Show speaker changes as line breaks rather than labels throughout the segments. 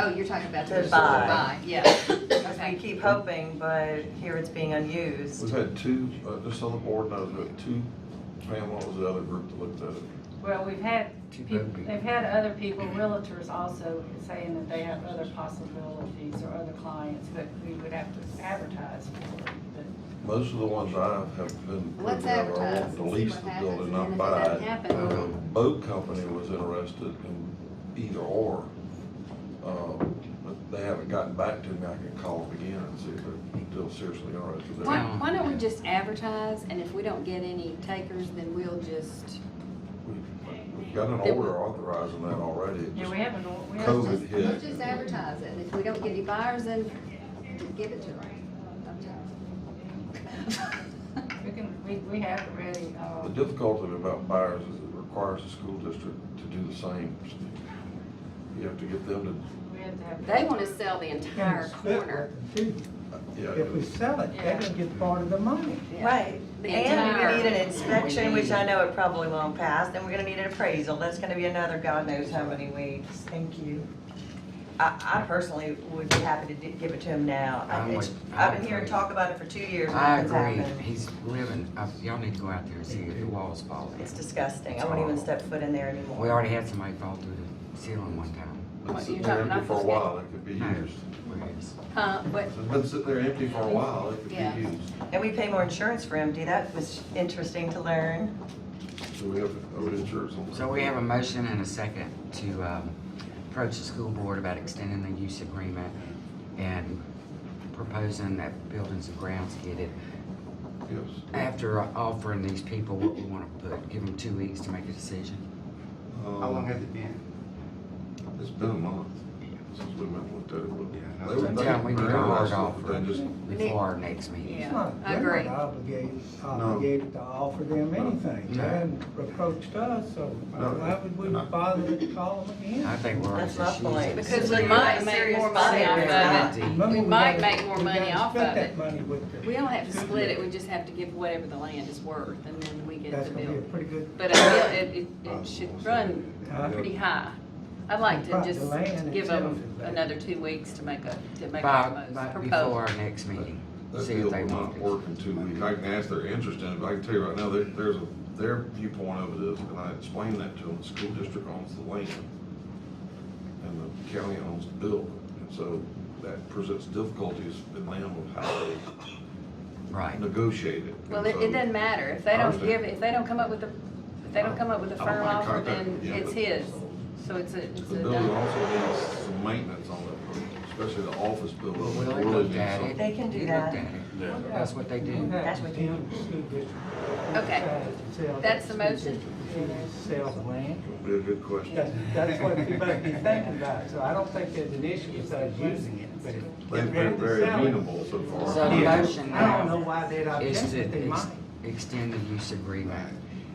Oh, you're talking about the
To
reserve
buy.
buy, yeah.
Because we keep hoping, but here it's being
We've
unused.
had two, uh, just so the board knows, we had two, Pam, what was the other group that looked at it?
Well, we've had,
Too
peop-
bad we-
they've had other people, realtors also saying that they have other possibilities or other clients, but we would have to advertise for it. But
Most of the ones I have been.
Let's
looking at are all
advertise
To
and see
lease
what
uh, the
happens, and
building, not
then if it
buy
doesn't
it.
happen,
Uh,
we'll-
Boat company was interested in either or. Uh, But they haven't gotten back to me. I can call them again and see if they're still seriously interested.
Why,
They're-
why don't we just advertise, and if we don't get any takers, then we'll just,
We've we've got an order authorizing that already. It
Yeah,
just-
we haven't, we
we'll
COVID.
haven't,
just,
hit.
we'll just advertise it, and if we don't get any buyers, then give it to them.
we can, we, we have already,
The
uh,
difficulty about buyers is it requires the school district to do the same. You have to get them to
we have to have.
They wanna sell the entire corner,
Yeah.
If we sell it, they're gonna get part of the money.
Right, and
The
we
entire-
need an inspection, which I know it probably won't pass, and we're gonna need an appraisal, that's gonna be another God knows how many weeks, thank you. I, I personally would be happy to di- give it to him now. I-
I'm
it's-
with-
I've
I'm
been hearing
with-
talk about it for two years. and
I
nothing's
agree,
happened.
he's living, I- y'all need to go out there and see it, the wall's falling.
It's disgusting, I won't even step foot in there anymore.
We already had somebody fall through the ceiling one time.
Been
What,
sitting
you're
there
talking
empty for a
knuckles
while, it could be
No,
used.
whereas-
huh, but,
It's been sitting there empty for a while, it could
Yeah.
be used.
And we pay more insurance for empty, that was interesting to learn.
So we have, oh, insurance on that.
So we have a motion and a second to um, approach the school board about extending the use agreement and proposing that buildings and grounds get it.
Yes.
After offering these people what we want to put, give them two weeks to make a decision.
How long
Um,
has it been?
It's been a month since we went and looked at it.
Yeah,
but
no,
They were
it's-
Yeah, we
thinking
need a
very
hard
much,
offer.
but they just,
Before our next meeting.
yeah.
It
I
Not- They're
agree.
not obligated, obligated to offer them anything. They
No.
hadn't approached us, so
No.
why would we bother to call them
I
again?
think we're.
That's my point.
Because
So
we
you're
might
a
make
serious
more money
buyer.
off of it.
Remember,
We
we
might
gotta-
make more
we gotta
money off
split
of
that
it.
money with the-
We don't have to split it, we just have to give whatever the land is worth, and then we get
That's
the
gonna be a
bill.
pretty good.
But I feel it, it, it should run pretty high. I'd like to
Right, the
just
land
give
itself
them
is bad.
another two weeks to make a, to make
By,
a
by,
most
before
proposal.
our next meeting.
that
See if
deal
they
will
want
not
it.
work in two weeks. I can ask their interest in it, but I can tell you right now, there- there's a, their viewpoint of it is, and I explained that to them, the school district owns the land. And the county owns the building. And so that presents difficulties in land of how they
Right.
negotiate it.
Well,
And
it, it
so-
doesn't matter, if they
I
don't
understand.
give, if they don't come up with a, if they don't come up with a
I don't
firm
mind
offer,
contact,
then
yeah,
it's
but-
his. So it's a, it's
The
a.
building also needs some maintenance on it, especially the office building.
Well, we
It really
looked
needs
at
some-
it.
They can do
We looked
that.
at it. That's what they do.
That's what they-
Okay. That's the motion?
Sell the land.
It'll Be a good question.
That's, that's what people might be thinking about, so I don't think there's an issue with us using it, but. if
They've been very amenable so far.
So the motion
I don't know
now
why they'd
is
object,
to
but they
ex-
might.
extend the use agreement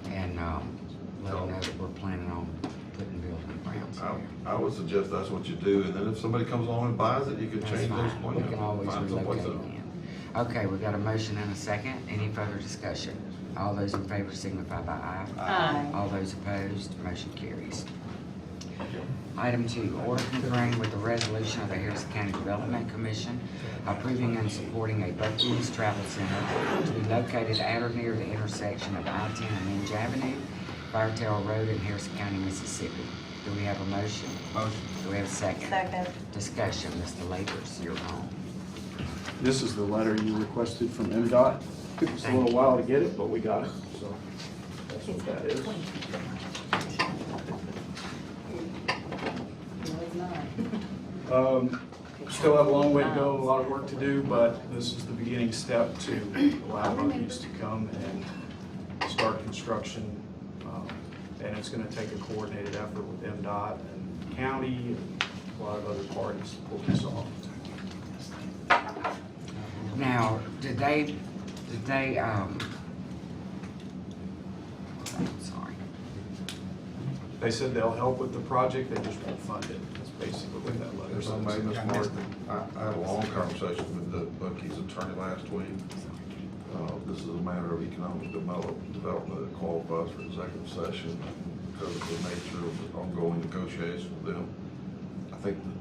and, um, let them know that we're planning on putting building grounds
Oh.
I,
there.
I would suggest that's what you do, and then if somebody comes along and buys it, you can
That's
change those
fine, we
plans.
can always
Find someplace
relocate
else.
them. Okay, we got a motion and a second, any further discussion? All those in favor signify by aye.
Aye.
All those opposed, motion carries. Item two, order concurring with the resolution of the Harrison County Development Commission approving and supporting a Bucky's Travel Center to be located at or near the intersection of I-10 and Minge Avenue, Firetail Road in Harrison County, Mississippi. Do we have a motion? Motion. Do we have a second?
Second.
Discussion, Mr. Labors, you're on.
This is the letter you requested from MDOT. Took us a little while to get it, but we got it, so that's what that is.
No, it's not.
Um, Still have a long way to go, a lot of work to do, but this is the beginning step to allow Bucky's to come and start construction. Um, And it's gonna take a coordinated effort with MDOT and county and a lot of other parties to pull this off.
Now, did they, did they, um, sorry.
They said they'll help with the project, they just won't fund it. That's basically what that letter
If I may,
says.
Ms. Martin, I, I had a long conversation with the Bucky's attorney last week. Uh, this is a matter of economic develop- development that qualifies for executive session because of the nature of the ongoing negotiations with them. I think